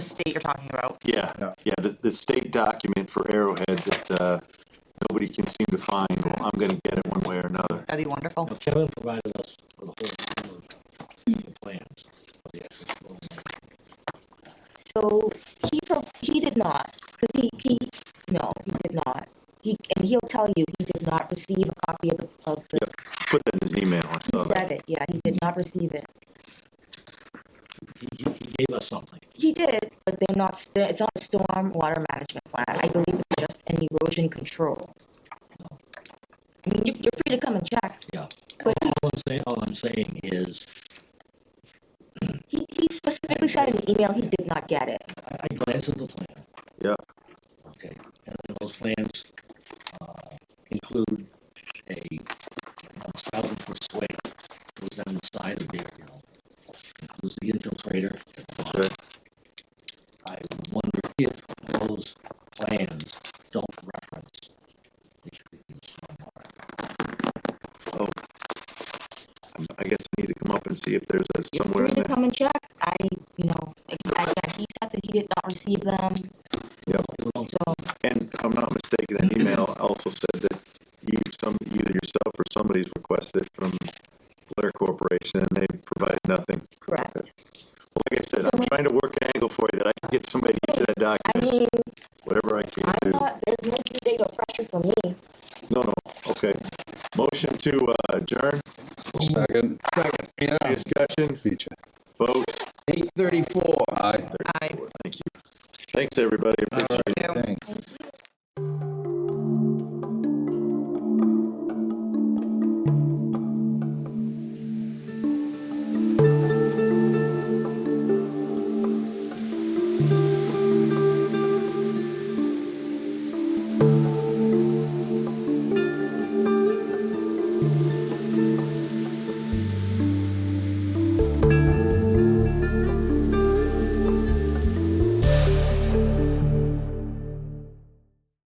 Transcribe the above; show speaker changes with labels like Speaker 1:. Speaker 1: state you're talking about.
Speaker 2: Yeah,
Speaker 3: Yeah.
Speaker 2: yeah, the, the state document for Arrowhead that, uh, nobody can seem to find, well, I'm gonna get it one way or another.
Speaker 1: That'd be wonderful.
Speaker 4: Now Kevin provided us with a whole number of plans. of the actual building.
Speaker 5: So he pro- he did not because he, he no he did not. He and he'll tell you he did not receive a copy of the of the.
Speaker 2: Put that in his email, I
Speaker 5: He
Speaker 2: saw that.
Speaker 5: said it. Yeah, he did not receive it.
Speaker 4: He, he, he gave us something.
Speaker 5: He did, but they're not. s- They're, it's not a storm water management plan. I believe it's just an erosion control. I mean, you, you're free to come and check.
Speaker 4: Yeah.
Speaker 5: But he,
Speaker 4: All I'm saying, all I'm saying is,
Speaker 5: he, he specifically said in the email he did not get it.
Speaker 4: I, I glanced at the plan,
Speaker 2: Yeah,
Speaker 4: okay, and then those plans, uh, include a thousand foot swale that goes down the side of the you know, includes the infiltrator. at the bottom.
Speaker 2: okay,
Speaker 4: I wonder if those plans don't reference the treatment stormwater.
Speaker 2: oh. I'm- I guess I need to come up and see if there's a
Speaker 5: You're
Speaker 2: somewhere
Speaker 5: free
Speaker 2: in
Speaker 5: to
Speaker 2: there.
Speaker 5: come and check. I, you know, again, he said that he did not receive them.
Speaker 2: Yeah,
Speaker 5: So
Speaker 2: and if I'm not mistaken, that email also said that you, some, either yourself or somebody's requested from Blair Corporation, and they provided nothing.
Speaker 5: correct.
Speaker 2: Well, Like I said, I'm trying to work an angle for you that I can get somebody to get that
Speaker 5: I
Speaker 2: document,
Speaker 5: mean,
Speaker 2: whatever I can
Speaker 5: I'm
Speaker 2: do.
Speaker 5: not. There's no too big of pressure for me.
Speaker 2: No, no, okay. Motion to uh, adjourn,
Speaker 3: Second. Second. Yeah.
Speaker 2: discussion,
Speaker 3: Feature.
Speaker 2: vote.
Speaker 3: Eight thirty-four. Aye.
Speaker 1: Aye.
Speaker 2: Thanks, everybody. Appreciate it.
Speaker 1: Thank you.
Speaker 3: Thanks.